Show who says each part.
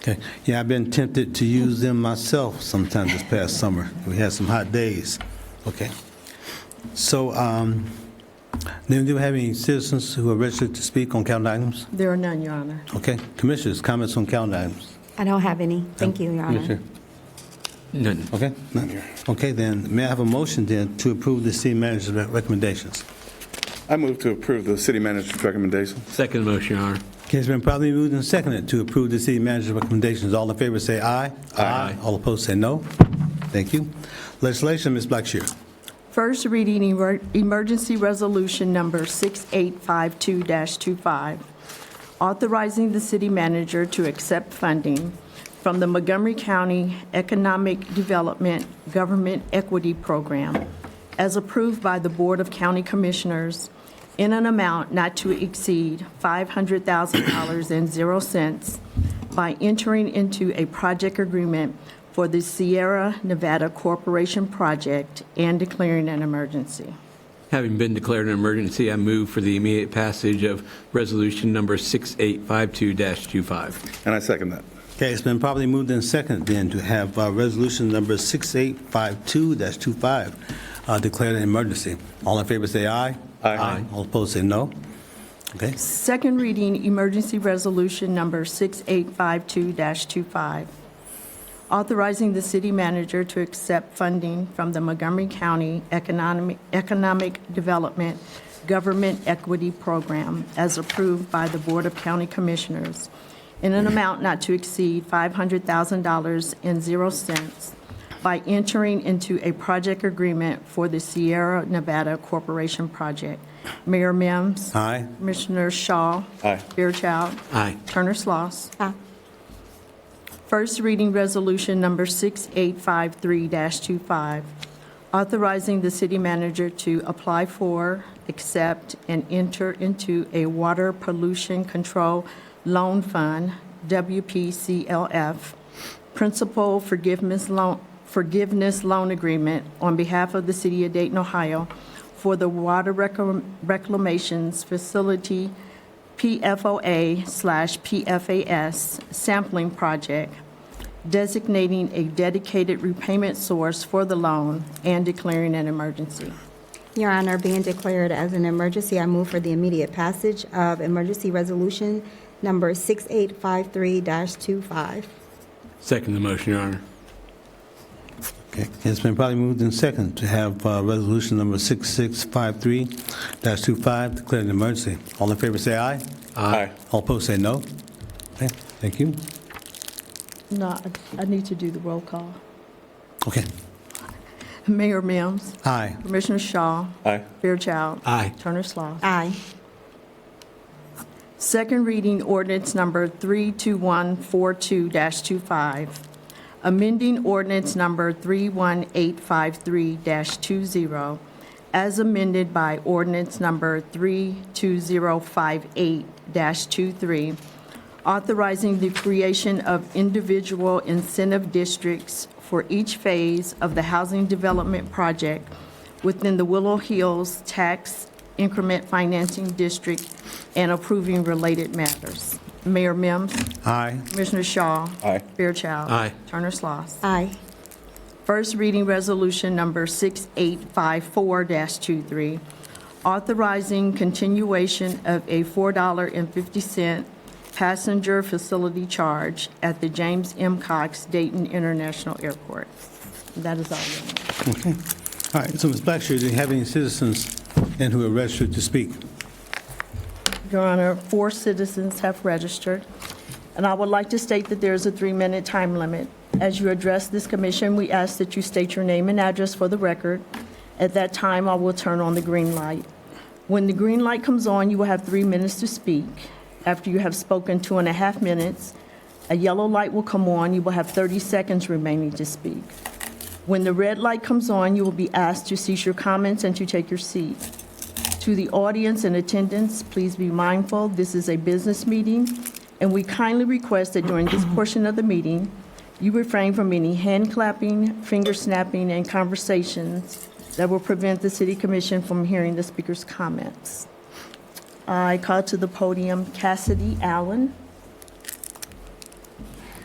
Speaker 1: Okay, yeah, I've been tempted to use them myself sometime this past summer. We had some hot days. Okay. So, um, then do we have any citizens who are registered to speak on calendar items?
Speaker 2: There are none, Your Honor.
Speaker 1: Okay, commissioners, comments on calendar items?
Speaker 3: I don't have any. Thank you, Your Honor.
Speaker 4: None.
Speaker 1: Okay, none here. Okay, then, may I have a motion then to approve the city manager's re- recommendations?
Speaker 5: I move to approve the city manager's recommendation.
Speaker 4: Second motion, Your Honor.
Speaker 1: Okay, it's been properly moved and seconded to approve the city manager's recommendations. All in favor say aye.
Speaker 4: Aye.
Speaker 1: All opposed say no. Thank you. Legislation, Ms. Blackshear.
Speaker 2: First reading emer- emergency resolution number 6852-25, authorizing the city manager to accept funding from the Montgomery County Economic Development Government Equity Program as approved by the Board of County Commissioners in an amount not to exceed $500,000 and zero cents by entering into a project agreement for the Sierra Nevada Corporation Project and declaring an emergency.
Speaker 4: Having been declared an emergency, I move for the immediate passage of Resolution Number 6852-25.
Speaker 5: And I second that.
Speaker 1: Okay, it's been properly moved and seconded then to have uh, Resolution Number 6852-25 uh, declared an emergency. All in favor say aye.
Speaker 5: Aye.
Speaker 1: All opposed say no. Okay,
Speaker 2: Second reading, emergency resolution number 6852-25, authorizing the city manager to accept funding from the Montgomery County Economic Economic Development Government Equity Program as approved by the Board of County Commissioners in an amount not to exceed $500,000 and zero cents by entering into a project agreement for the Sierra Nevada Corporation Project. Mayor Mims.
Speaker 1: aye.
Speaker 2: Commissioner Shaw.
Speaker 5: Aye.
Speaker 2: Fairchild.
Speaker 4: Aye.
Speaker 2: Turner Sloss.
Speaker 3: Aye.
Speaker 2: First reading resolution number 6853-25, authorizing the city manager to apply for, accept, and enter into a water pollution control loan fund, WPCLF, principal forgiveness loan, forgiveness loan agreement on behalf of the city of Dayton, Ohio, for the water reclam- reclamations facility PFOA slash PFAS sampling project, designating a dedicated repayment source for the loan and declaring an emergency.
Speaker 3: Your Honor, being declared as an emergency, I move for the immediate passage of emergency resolution number 6853-25.
Speaker 4: Second the motion, Your Honor.
Speaker 1: Okay, it's been properly moved and seconded to have uh, Resolution Number 6653-25 declared an emergency. All in favor say aye.
Speaker 5: Aye.
Speaker 1: All opposed say no. Okay, thank you.
Speaker 2: No, I- I need to do the roll call.
Speaker 1: Okay,
Speaker 2: Mayor Mims.
Speaker 1: aye.
Speaker 2: Commissioner Shaw.
Speaker 5: Aye.
Speaker 2: Fairchild.
Speaker 4: Aye.
Speaker 2: Turner Sloss.
Speaker 3: Aye.
Speaker 2: Second reading ordinance number 32142-25, amending ordinance number 31853-20, as amended by ordinance number 32058-23, authorizing the creation of individual incentive districts for each phase of the housing development project within the Willow Hills Tax Increment Financing District and approving related matters. Mayor Mims,
Speaker 1: Aye.
Speaker 2: Commissioner Shaw.
Speaker 5: Aye.
Speaker 2: Fairchild.
Speaker 4: Aye.
Speaker 2: Turner Sloss.
Speaker 3: Aye.
Speaker 2: First reading resolution number 6854-23, authorizing continuation of a $4.50 passenger facility charge at the James M. Cox Dayton International Airport. That is all. Your Honor.
Speaker 1: Okay. All right, so Ms. Blackshear, do you have any citizens and who are registered to speak?
Speaker 2: Your Honor, four citizens have registered, and I would like to state that there is a three-minute time limit. As you address this commission, we ask that you state your name and address for the record. At that time, I will turn on the green light. When the green light comes on, you will have three minutes to speak. After you have spoken two and a half minutes, a yellow light will come on, you will have 30 seconds remaining to speak. When the red light comes on, you will be asked to cease your comments and to take your seat. To the audience in attendance, please be mindful, this is a business meeting, and we kindly request that during this portion of the meeting, you refrain from any hand clapping, finger snapping, and conversations that will prevent the city commission from hearing the speaker's comments. I call to the podium Cassidy Allen.